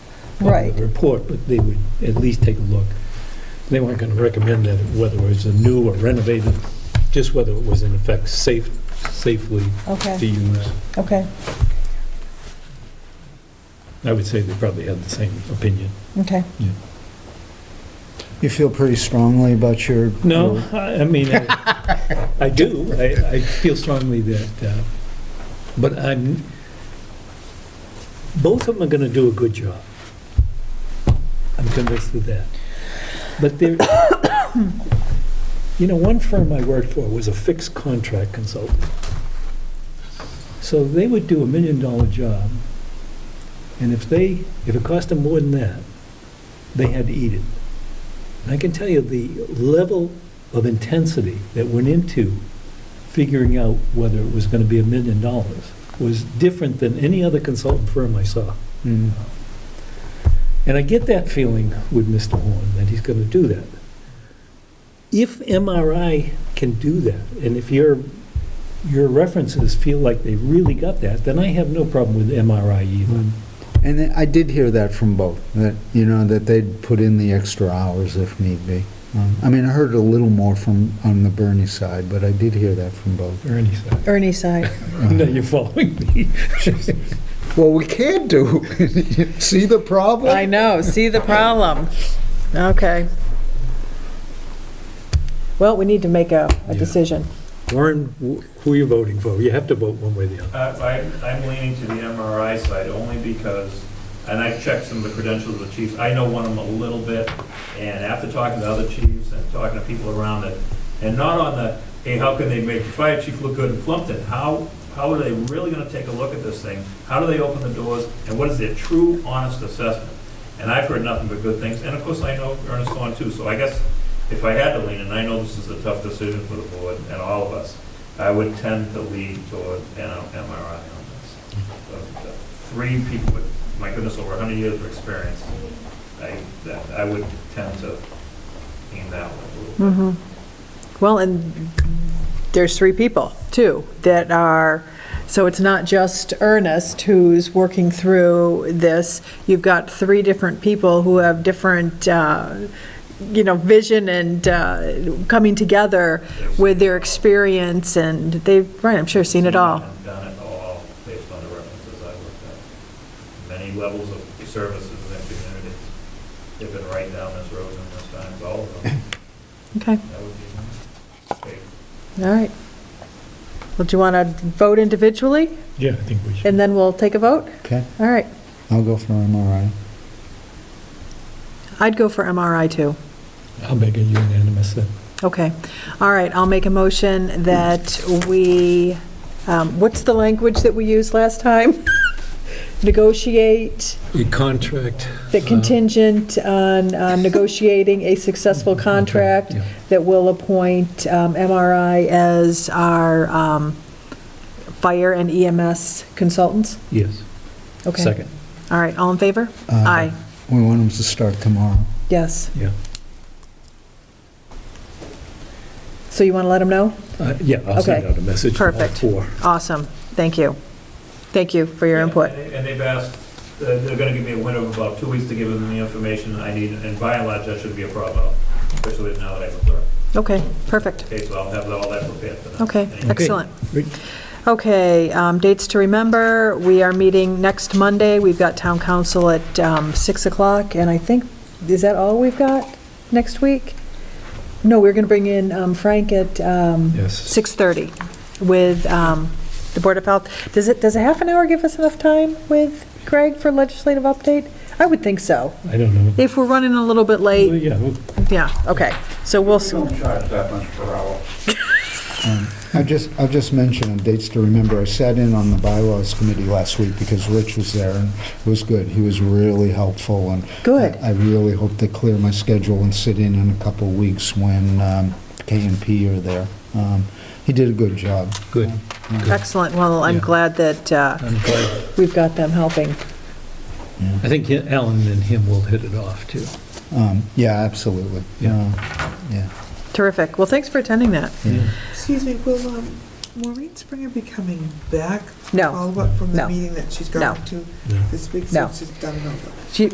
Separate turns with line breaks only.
on
Right.
the report, but they would at least take a look. They weren't going to recommend that whether it was a new or renovated, just whether it was in effect safe, safely to
Okay,
use.
okay,
I would say they probably had the same opinion.
okay.
You feel pretty strongly about your...
No, I I mean, I I do, I, I feel strongly that, uh, but I'm, both of them are going to do a good job. I'm convinced of that. But there, you know, one firm I worked for was a fixed contract consultant. So they would do a million dollar job, and if they, if it cost them more than that, they had to eat it. And I can tell you the level of intensity that went into figuring out whether it was going to be a million dollars was different than any other consultant firm I saw.
Mm.
And I get that feeling with Mr. Horn, that he's going to do that. If MRI can do that, and if your, your references feel like they really got that, then I have no problem with MRI either.
And then I did hear that from both, that, you know, that they'd put in the extra hours if need be.
Mm,
Um, I mean, I heard a little more from, on the Bernie side, but I did hear that from both.
Or any side.
Ernie side,
No, you're following me.
Well, we can do, see the problem?
I know, see the problem. Okay. Well, we need to make a, a
Yeah.
decision.
Warren, wh- who are you voting for? You have to vote one way or the other.
Uh, I- I'm leaning to the MRI side only because, and I've checked some of the credentials of the chiefs, I know one of them a little bit, and after talking to other chiefs and talking to people around it, and not on the, hey, how can they make the fire chief look good in Plumpton? How, how are they really gonna take a look at this thing? How do they open the doors, and what is their true, honest assessment? And I've heard nothing but good things, and of course, I know Ernest Horn too, so I guess if I had to lean, and I know this is a tough decision for the board and all of us, I would tend to lean toward an MRI on this. But, uh, Three people with, my goodness, over 100 years of experience, I, that- I would tend to lean that way a little
Mhm.
bit.
Well, and there's three people, too, that are, so it's not just Ernest who's working through this. You've got three different people who have different, uh, you know, vision and uh, coming together with their experience, and they've, right, I'm sure, seen it all.
And done it all based on the references I looked at. Many levels of services in that community. They've been right down this road numerous times, all of them.
Okay,
That would be my take.
all right. Well, do you want to vote individually,
Yeah, I think we should.
and then we'll take a vote?
Okay,
All right.
I'll go for MRI.
I'd go for MRI, too.
I'll make it unanimous then.
Okay, all right, I'll make a motion that we, um, what's the language that we used last time? Negotiate,
A contract.
the contingent on uh, negotiating a successful contract
yeah.
that will appoint um, MRI as our um, fire and EMS consultants?
Yes.
Okay.
Second.
All right, all in favor?
Uh,
Aye,
We want them to start tomorrow.
yes.
Yeah.
So you want to let them know?
Uh, Yeah, I'll send
Okay.
out a message to all
Perfect.
four.
Awesome, thank you. Thank you for your
Yeah,
input.
and they- And they've asked, uh, they're gonna give me a window of about two weeks to give them the information I need, and by and large, that shouldn't be a problem, especially now that I'm a clerk.
Okay, perfect.
Okay, so I'll have all that prepared for them.
Okay,
Any-
excellent.
Great.
Okay, um, dates to remember, we are meeting next Monday, we've got town council at um, 6 o'clock, and I think, is that all we've got next week? No, we're going to bring in um, Frank at um,
Yes.
6:30 with um, the Board of Health. Does it, does a half an hour give us enough time with Greg for legislative update? I would think so.
I don't know.
If we're running a little bit
Well,
late,
Yeah, well,
yeah, okay, so we'll, s-
charge that much per hour.
I'll just, I'll just mention, dates to remember, I sat in on the bylaws committee last week because Rich was there and it was good. He was really helpful and.
Good.
I I really hope they clear my schedule and sit in in a couple of weeks when um, K and P are there. Um, He did a good job.
good.
excellent, well, I'm
Yeah.
glad that uh,
I'm glad.
we've got them helping.
I think he- Alan and him will hit it off, too.
Um, Yeah, absolutely.
Yeah.
Uh, Yeah.
Terrific. Well, thanks for attending that.
Excuse me, will um, Maureen Springer be coming back?
No.
Follow up from
No.
the meeting that she's
No.
going to
No.
this week?
No.
So she's done it over.
She,